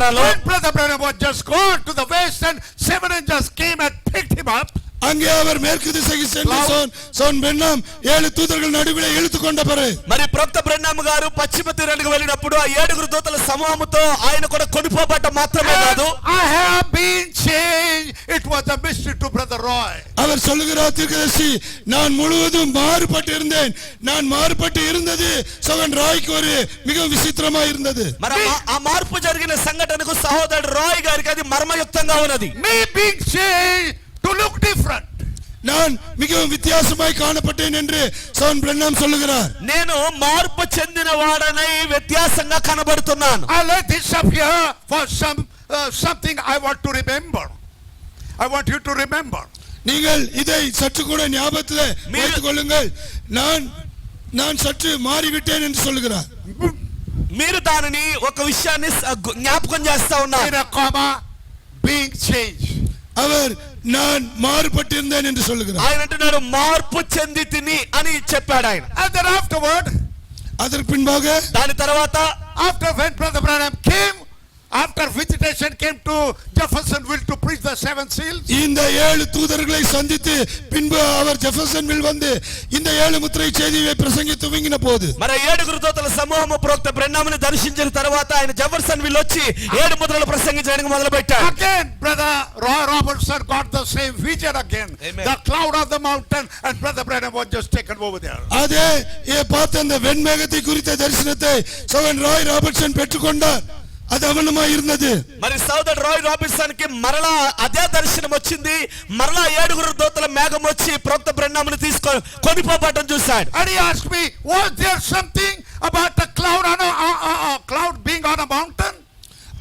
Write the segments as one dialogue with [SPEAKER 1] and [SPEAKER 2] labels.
[SPEAKER 1] చేశారో
[SPEAKER 2] When brother Branham was just gone to the west and seven angels came and picked him up.
[SPEAKER 3] அங்கே அவர் மேற்கு திசைக்கு சென்று சோன் சோன் பெண்ணாம் ஏழு தூதர்கள் நடுவிலே இழுத்து கொண்ட பிறகு
[SPEAKER 1] మరి ప్రొక్త బ్రహ్నామ్ గారు పశ్చిమ తీరానికి వెళ్ళినప్పుడు ఆ ఏడుగురు దూతల సమూహంతో ఆయన కూడా కొనిపోబట్ట మాత్రమే
[SPEAKER 2] And
[SPEAKER 1] కాదు
[SPEAKER 2] I have been changed. It was a mystery to brother Roy.
[SPEAKER 3] அவர் சொல்லுகிறார் தீர்க்கதரிசி நான் முழுவதும் மாறுபட்டு இருந்தேன் நான் மாறுபட்டு இருந்தது சோகன் ராய்க்கு ஒரு மிக விசித்திரமா இருந்தது
[SPEAKER 1] మరి ఆ మా- ఆ మార్పు జరిగిన సంఘటనకు సహోదరుడు రాయ్ గారికి అది మర్మయుక్తంగా ఉన్నది
[SPEAKER 2] Me being changed to look different.
[SPEAKER 3] நான் மிகவும் வித்தியாசமாய் காணப்பட்டேன் என்று சோன் பிரண்ணாம் சொல்லுகிறார்
[SPEAKER 1] నేను మార్పు చెందిన వాడనై వ్యత్యాసంగా కనబడుతున్నాను
[SPEAKER 2] I left this up here for some, uh, something I want to remember. I want you to remember.
[SPEAKER 3] நீங்கள் இதை சற்று கூட ஞாபகத்தில் வைத்துக் கொள்ளுங்கள் நான் நான் சற்று மாறிவிட்டேன் என்று சொல்லுகிறார்
[SPEAKER 1] మీరు దానిని ఒక విషయాన్ని స- గు- జ్ఞాపకం చేస్తా
[SPEAKER 2] In
[SPEAKER 1] ఉన్నారు
[SPEAKER 2] a comma, being changed.
[SPEAKER 3] அவர் நான் மாறுபட்டிருந்தேன் என்று சொல்லுகிறார்
[SPEAKER 1] ఆయన అంటున్నాడు మార్పు చెంది తిని అని చెప్పాడు ఆయన
[SPEAKER 2] And then afterward,
[SPEAKER 3] அதற்கு பின்பாக
[SPEAKER 1] దాని తర్వాత
[SPEAKER 2] After when Brother Branham came, after visitation came to Jeffersonville to preach the seven seals,
[SPEAKER 3] இந்த ஏழு தூதர்களை சந்தித்து பின்பு அவர் ஜெஃபர்சன்வில் வந்து இந்த ஏழு முத்திரை செய்தியை பிரசங்கி துவங்கின போது
[SPEAKER 1] మరి ఏడుగురు దోతల సమూహము ప్రోక్త బ్రహ్మని దర్శించిన తర్వాత ఆయన జఫర్సన్ విల్ వచ్చి ఏడు ముద్రలు ప్రసంగించడానికి మొదలు పెట్టాడు
[SPEAKER 2] again Brother Roy Robertson got the same vision again.
[SPEAKER 1] Amen.
[SPEAKER 2] The cloud of the mountain and Brother Branham was just taken over there.
[SPEAKER 3] அதே ஏ, பார்த்த அந்த வெண்மேகத்தை குறித்த தரிசனத்தை சவன் ராய் ராபர்ட்சன் பெற்றுக்கொண்டார் அது அவனமாய் இருந்தது
[SPEAKER 1] మరి సోదరుడు రాయ్ రాబిన్సన్ కి మరలా అదే దర్శనం వచ్చింది మరలా ఏడుగురు దోతల మేఘం వచ్చి ప్రోక్త బ్రహ్మని తీసుకొని కొనిపోబట్టం చూశాడు
[SPEAKER 2] And he asked me, was there something about the cloud on a, a- a- a cloud being on a mountain?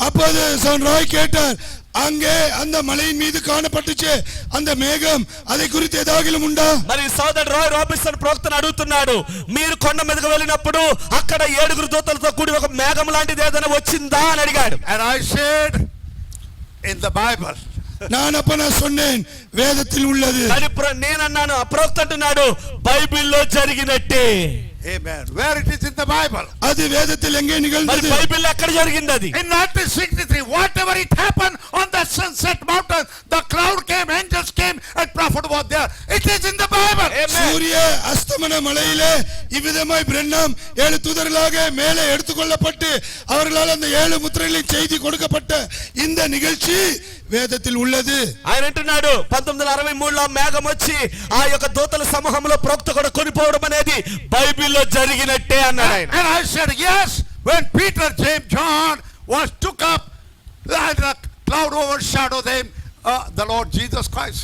[SPEAKER 3] அப்போது சவன் ராய் கேட்டார் அங்கே அந்த மலையின் மீது காணப்பட்டுச்சு அந்த மேகம் அதை குறித்து ஏதாகிலும் உண்டா
[SPEAKER 1] మరి సోదరుడు రాయ్ రాబిన్సన్ ప్రోక్తను అడుగుతున్నాడు మీరు కొండ మీదకు వెళ్ళినప్పుడు అక్కడ ఏడుగురు దోతలతో కూడి ఒక మేఘం లాంటిది ఏదైనా వచ్చిందా అని అడిగాడు
[SPEAKER 2] And I said, in the Bible.
[SPEAKER 3] நான் அப்ப நான் சொன்னேன் வேதத்தில் உள்ளது
[SPEAKER 1] కానీ ప్ర- నేనన్నాను ఆ ప్రోక్త అంటున్నాడు బైబిల్లో జరిగినట్టే
[SPEAKER 2] Amen. Where it is in the Bible.
[SPEAKER 3] அது வேதத்தில் எங்கே
[SPEAKER 1] మరి
[SPEAKER 3] நிகழ்ந்தது
[SPEAKER 1] బైబిల్ ఎక్కడ జరిగింది అది
[SPEAKER 2] In 1963, whatever it happened on the sunset mountain, the cloud came, angels came, and prophet was there. It is in the Bible.
[SPEAKER 3] சூரிய அஸ்தமன மலையிலே இவ்விதமாய் பிரண்ணாம் ஏழு தூதர்களாக மேலே எடுத்துக்கொள்ளப்பட்டு அவர்களால் அந்த ஏழு முத்திரைகளை செய்தி கொடுக்கப்பட்ட இந்த நிகழ்ச்சி வேதத்தில் உள்ளது
[SPEAKER 1] ఆయన అంటున్నాడు పంతొమ్మిది వందల అరవై మూడులో మేఘం వచ్చి ఆ యొక్క దూతల సమూహంలో ప్రోక్త కూడా కొనిపోవడం అనేది బైబిల్లో జరిగినట్టే అన్నాడు ఆయన
[SPEAKER 2] And I said, yes, when Peter, James, John was took up, and the cloud overshadowed them, uh, the Lord Jesus Christ.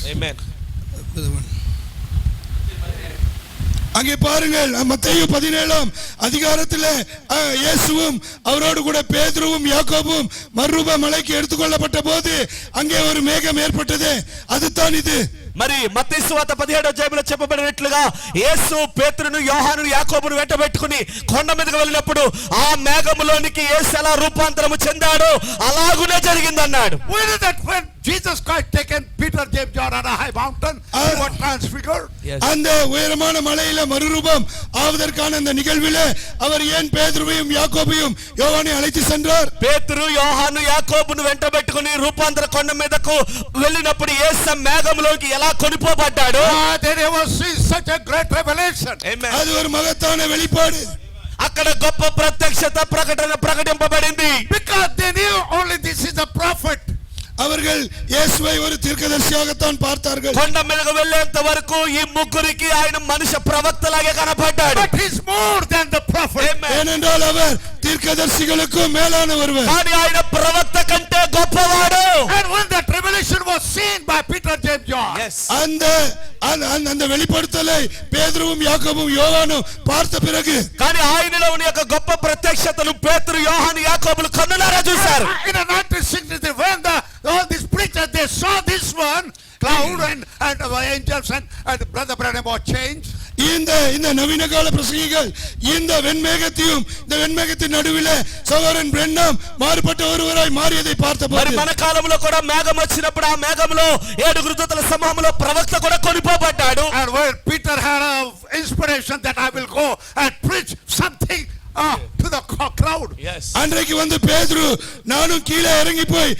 [SPEAKER 3] அங்கே பாருங்கள் மத்தேயு பதினேழாம் அதிகாரத்திலே அஹ், இயேசுவும் அவரோடு கூட பேதுருவும் யாக்கோபும் மறுரூப மலைக்கு எடுத்துக்கொள்ளப்பட்ட போது அங்கே ஒரு மேகம் ஏற்பட்டது அதுதான் இது
[SPEAKER 1] మరి మత్తయి వాత పదిహేడో జైబులో చెప్పబడినట్లుగా యేసు పేతురును యోహాను యాకోబును వెంటబెట్టుకుని కొండ మీదకి వెళ్ళినప్పుడు ఆ మేఘములోనికి యేసు ఎలా రూపాంతరము చెందాడో అలాగునే జరిగిందన్నాడు
[SPEAKER 2] We know that when Jesus Christ taken Peter, James, John on a high mountain, he was transfigured.
[SPEAKER 3] அந்த உயரமான மலையில மறுரூபம் ஆவதற்கான அந்த நிகழ்விலே அவர் ஏன் பேதுருவையும் யாக்கோபையும் யோவானை அழைத்து சென்றார்
[SPEAKER 1] పేతురు యోహాను యాకోబును వెంటబెట్టుకుని రూపాంతర కొండ మీదకు వెళ్ళినప్పుడు యేసు మేఘంలోకి ఎలా కొనిపోబడ్డాడు
[SPEAKER 2] Ah, they never see such a great revelation.
[SPEAKER 3] அது ஒரு மகத்தான வெளிப்பாடு
[SPEAKER 1] అక్కడ గొప్ప ప్రత్యక్షత ప్రకటన ప్రకటింపబడింది
[SPEAKER 2] Because they knew only this is a prophet.
[SPEAKER 3] அவர்கள் இயேசுவை ஒரு தீர்க்கதரிசியாகத்தான் பார்த்தார்கள்
[SPEAKER 1] కొండ మీదకు వెళ్ళేంత వరకు ఈ ముగ్గురికి ఆయన మనిషి ప్రవక్తలాగే కనపడ్డాడు
[SPEAKER 2] But he's more than the prophet.
[SPEAKER 3] ஏனென்றால் அவர் தீர்க்கதரிசிகளுக்கும் மேலான ஒருவர்
[SPEAKER 1] కానీ ఆయన ప్రవక్త కంటే గొప్పవాడు
[SPEAKER 2] And when that revelation was seen by Peter, James, John,
[SPEAKER 3] அந்த அந்த- அந்த- அந்த வெளிப்படுத்தலை பேதுருவும் யாக்கோபும் யோவானும் பார்த்த பிறகு
[SPEAKER 1] కానీ ఆయనలో ఉన్న యొక్క గొప్ప ప్రత్యక్షతను పేతురు యోహాను యాకోబులు కన్నులారా చూశారు
[SPEAKER 2] Ah, in the 1963, when the, all these preachers, they saw this one, cloud and, and our angels and, and Brother Branham was changed.
[SPEAKER 3] இந்த இந்த நவீன கால பிரசங்கிகள் இந்த வெண்மேகத்தையும் இந்த வெண்மேகத்தின் நடுவிலே சகோதரன் பிரண்ணாம் மாறுபட்ட ஒருவராய் மாறியதை
[SPEAKER 1] మరి
[SPEAKER 3] பார்த்தபோது
[SPEAKER 1] మన కాలంలో కూడా మేఘం వచ్చినప్పుడు ఆ మేఘంలో ఏడుగురు దూతల సమూహంలో ప్రవక్త కూడా కొనిపోబడ్డాడు
[SPEAKER 2] And when Peter had an inspiration that I will go and preach something uh, to the the co- crowd.
[SPEAKER 4] Yes.
[SPEAKER 3] அன்றைக்கு வந்து பேதுரு நானும் கீழே இறங்கி போய்